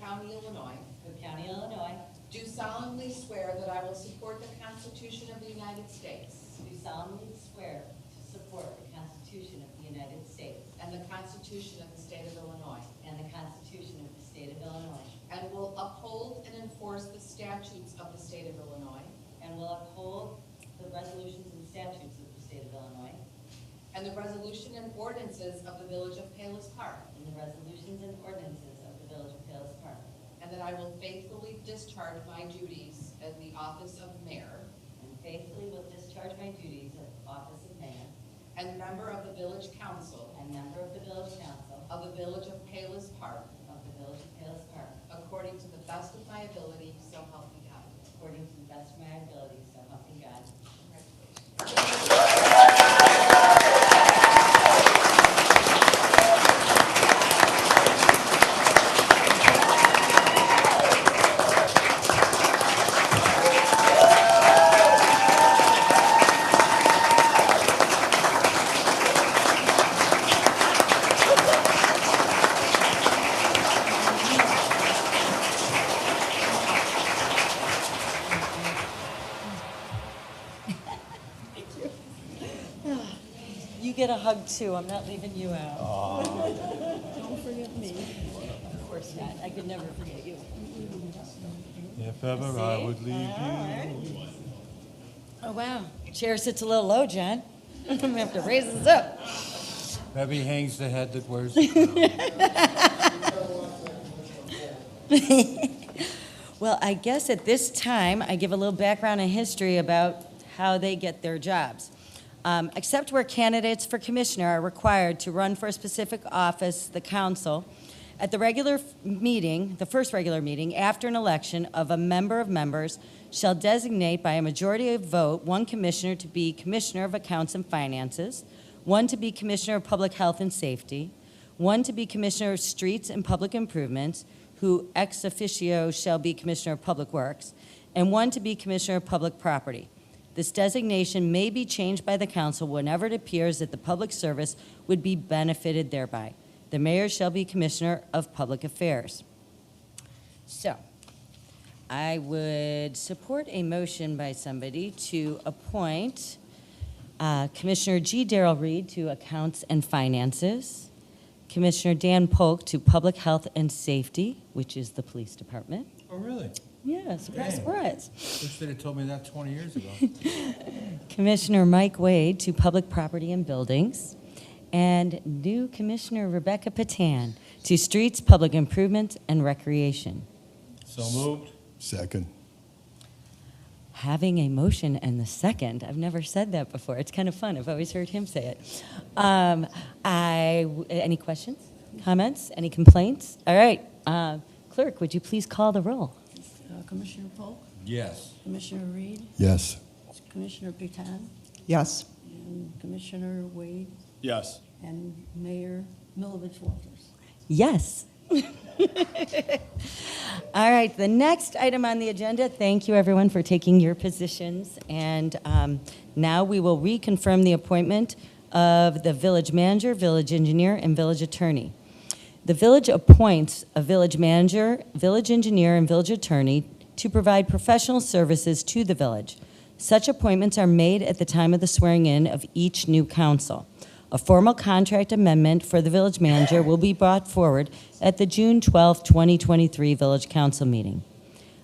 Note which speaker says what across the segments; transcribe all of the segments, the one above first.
Speaker 1: County, Illinois,
Speaker 2: Cook County, Illinois,
Speaker 1: do solemnly swear that I will support the Constitution of the United States
Speaker 2: do solemnly swear to support the Constitution of the United States
Speaker 1: and the Constitution of the State of Illinois,
Speaker 2: and the Constitution of the State of Illinois,
Speaker 1: and will uphold and enforce the statutes of the State of Illinois
Speaker 2: and will uphold the resolutions and statutes of the State of Illinois
Speaker 1: and the resolution and ordinances of the Village of Palos Park,
Speaker 2: and the resolutions and ordinances of the Village of Palos Park,
Speaker 1: and that I will faithfully discharge my duties as the office of mayor
Speaker 2: and faithfully will discharge my duties of office of mayor
Speaker 1: and member of the village council
Speaker 2: and member of the Village Council
Speaker 1: of the Village of Palos Park
Speaker 2: of the Village of Palos Park
Speaker 1: according to the best of my ability, so help me God.
Speaker 2: according to the best of my ability, so help me God.
Speaker 1: Congratulations.
Speaker 2: You get a hug too, I'm not leaving you out.
Speaker 3: Don't forget me.
Speaker 2: Of course not, I could never forget you.
Speaker 4: If ever I would leave you.
Speaker 2: Oh, wow, chair sits a little low, John. I'm gonna have to raise this up.
Speaker 4: Debbie hangs the head that wears the crown.
Speaker 2: Well, I guess at this time, I give a little background and history about how they get their jobs. Um, Except where candidates for commissioner are required to run for a specific office, the council, at the regular f- meeting, the first regular meeting after an election of a member of members shall designate by a majority of vote one commissioner to be commissioner of accounts and finances, one to be commissioner of public health and safety, one to be Commissioner of Streets and Public Improvements, who ex officio shall be Commissioner of Public Works, and one to be Commissioner of Public Property. This designation may be changed by the council whenever it appears that the public service would be benefited thereby. The mayor shall be Commissioner of Public Affairs. So, I would support a motion by somebody to appoint uh, Commissioner G. Darrell Reed to Accounts and Finances, Commissioner Dan Polk to Public Health and Safety, which is the Police Department.
Speaker 4: Oh, really?
Speaker 2: Yeah, surprise,
Speaker 4: Dang.
Speaker 2: surprise.
Speaker 4: Wish they'd have told me that 20 years ago.
Speaker 2: Commissioner Mike Wade to Public Property and Buildings, and new Commissioner Rebecca Patan to Streets, Public Improvement, and Recreation.
Speaker 4: So moved.
Speaker 5: Second.
Speaker 2: having a motion and the second. I've never said that before. It's kind of fun. I've always heard him say it. Um, I, any questions, comments, any complaints? All right, uh, clerk, would you please call the roll?
Speaker 3: Uh, Commissioner Polk,
Speaker 4: Yes.
Speaker 3: Commissioner Reed,
Speaker 5: Yes.
Speaker 3: Commissioner Bhutan,
Speaker 6: Yes.
Speaker 3: and Commissioner Wade,
Speaker 5: Yes.
Speaker 3: and Mayor Milovich Walters.
Speaker 2: Yes. All right, the next item on the agenda, thank you everyone for taking your positions. And um, now we will reconfirm the appointment of the village manager, village engineer, and village attorney. The village appoints a village manager, village engineer, and village attorney to provide professional services to the village. Such appointments are made at the time of the swearing-in of each new council. A formal contract amendment for the village manager will be brought forward at the June 12, 2023 Village Council meeting.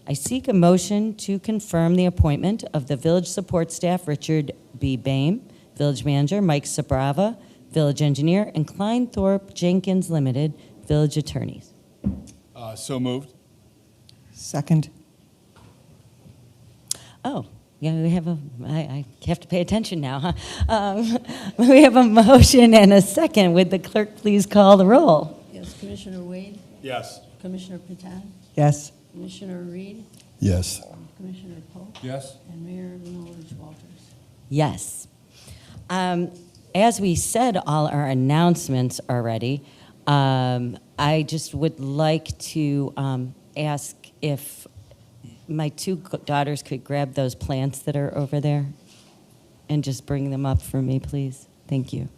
Speaker 2: I seek a motion to confirm the appointment of the village support staff, Richard B. Bame, village manager, Mike Sabrava, village engineer, and Klein Thorpe Jenkins Limited, village attorneys.
Speaker 5: Uh, so moved.
Speaker 6: Second.
Speaker 2: Oh, yeah, we have a, I, I have to pay attention now, huh? Um, We have a motion and a second. Would the clerk please call the roll?
Speaker 3: Yes, Commissioner Wade,
Speaker 5: Yes.
Speaker 3: Commissioner Bhutan,
Speaker 6: Yes.
Speaker 3: Commissioner Reed,
Speaker 5: Yes.
Speaker 3: Commissioner Polk,
Speaker 4: Yes.
Speaker 3: and Mayor Milovich Walters.
Speaker 2: Yes. Um, As we said, all our announcements already, um, I just would like to um, ask if my two g- daughters could grab those plants that are over there and just bring them up for me, please. Thank you.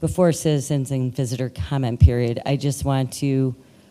Speaker 2: Before citizens and visitor comment period, I just want to